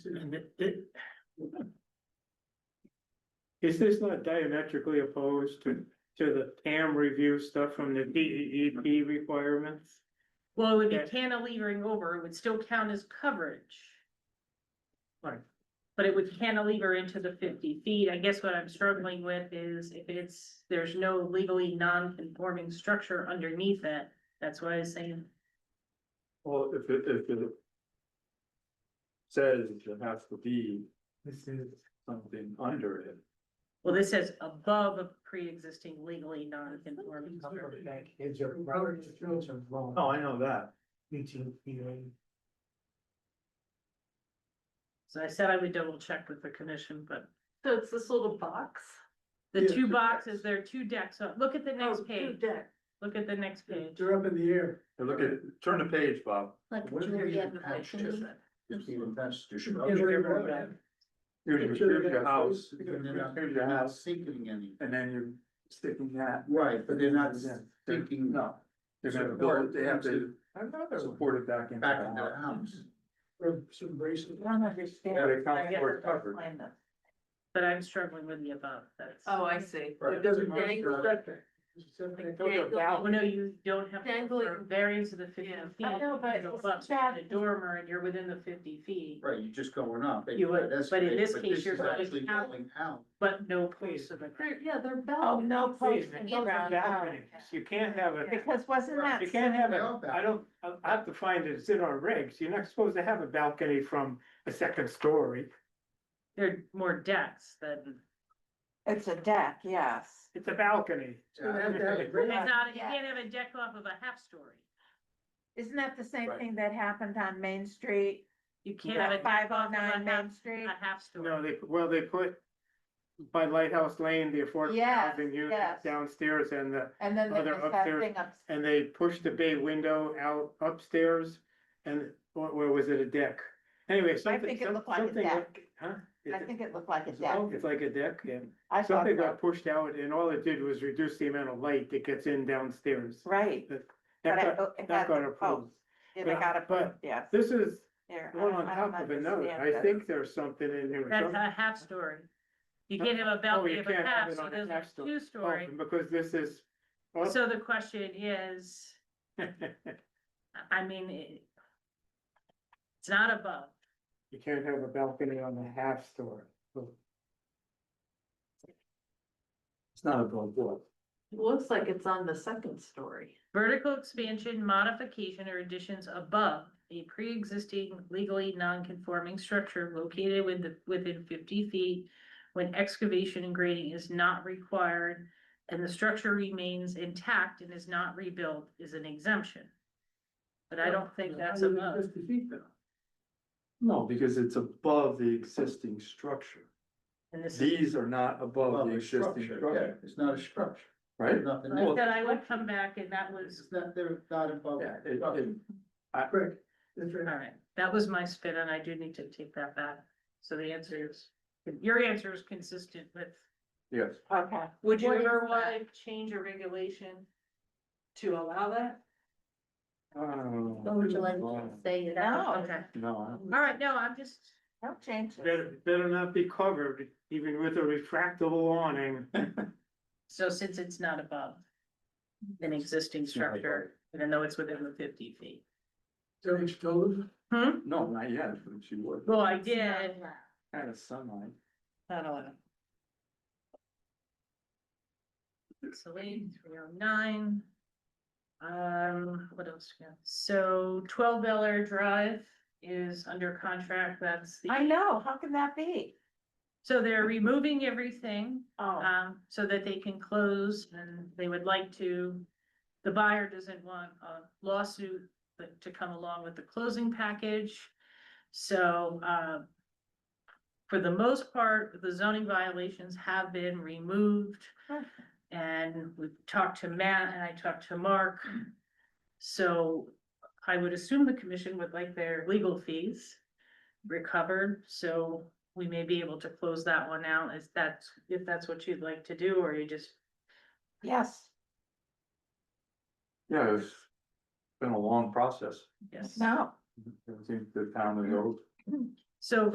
mean, it. Is this not diametrically opposed to, to the TAM review stuff from the D E E P requirements? Well, it would be Yeah. cantilevering over, it would still count as coverage. Right. But it would cantilever into the fifty feet, I guess what I'm struggling with is if it's, there's no legally non-conforming structure underneath it, that's what I was saying. Well, if it, if it. Says it has to be This is. something under it. Well, this says above a pre-existing legally non-conforming structure. Is your brother's children wrong? No, Oh, I know that. So I said I would double check with the commission, but So it's this little box. the Yeah, two two boxes, there are two decks, so look at the Oh, next two page, deck. look at the next page. They're up in the air. Hey, Look at, turn the page, Bob. Like What if you Julia get attached to Buckley. that? If you attach to your- Here's your- Here's your, here's your house, Then they're not- here's they're your not house, Sinking any. and then you're sticking that. Right, but they're not They're- sinking. No, they're gonna build, they have to support it back into Back into the the house. house. Some braces. Don't understand. Yeah, they I count guess for it's covered. plan that- But I'm struggling with the above, that's. Oh, I see. It doesn't Right. Oh, no, you don't have to go Dangling. for a variance of the fifty Yeah. feet. I know, but You go it's up to bad. The dormer and you're within the fifty feet, Right, you're just going up. You would- That's but in great, this case, this you're is going actually out. Going out. but no place of the. They're- Yeah, they're balanced. Oh, no Please, post it and goes ground. Oh, back. You can't have a, Because wasn't that? you can't have They a, are back. I don't, I I have to find it, it's in our regs, you're not supposed to have a balcony from a second story. They're more decks than, It's a deck, yes. It's a balcony. Yeah, I have to have a it's great- not, you Yeah. can't have a deck off of a half story. Isn't that the same Right. thing that happened on Main Street? You can't have a deck Five off of oh a nine half, Main Street? a half No, story. they, well, they put by Lighthouse Lane, the affordable Yes, housing unit yes. downstairs and the, And then Oh, there they're was up that there. thing up, and they pushed the bay window out upstairs. And or, or was it a deck? Anyway, something, think it some- looked like a something, deck. like- huh? I Is it- think it looked like a is it- deck. It's like a deck, yeah. I thought Something so. got pushed out and all it did was reduce the amount of light that gets in downstairs. Right. But That it- got, it that had got the approved. post. It But- got but- approved, yes. This is Here, I one don't- on I don't top of another. understand I this. think there's something in here. That's Some- a half story. You Huh? can't have a balcony Oh, you of a can't have half, it so on a there's half a story. two story. Oh, Because this is. oh, So the question is, I mean, it. It's not above, You can't have a balcony on a half story. It's not a billboard. It Looks like it's on the second story. Vertical expansion, modification, or additions above a pre-existing legally non-conforming structure located with the, within fifty feet when excavation and grading is not required and the structure remains intact and is not rebuilt is an exemption. But I don't think that's above. Fifty feet though. No, because it's above the existing structure. And this is, These are not above the Well, existing structure, structure, yeah, It's not a structure, right? nothing. I else. said I would come back and that was, It's not, they're not above. Yeah, it- it- I- all right, that was my spin and I do need to take that back. So the answer is, your answer is consistent with Yes. Okay. Would you What is ever that? want to change a regulation to allow that? uh, Oh, would you like wow. Say it out. Okay, No, I don't- all right, no, I'm just, Don't change it. Better, better not be covered, even with a retractable awning. so since it's not above an existing not above. structure, even though it's within the fifty feet. Don't explode. no, not yet, but she would, Well, I It's not did, allowed. kind of sunlight. not allowed. So eight, three oh nine. Um, what else? we got? So twelve Bel Air Drive is under contract, that's the. I know, how can that be? So they're removing everything, Uh, Oh, um, so that they can close and they would like to. The buyer doesn't want a lawsuit but to come along with the closing package. So, uh. For the most part, the zoning violations have been removed. Hmm. And we've talked to Matt and I talked to Mark. So I would assume the commission would like their legal fees recovered, so we may be able to close that one out, is that, if that's what you'd like to do, or you just, yes, Yeah, it's been a long process. yes. no. Everything the town and those So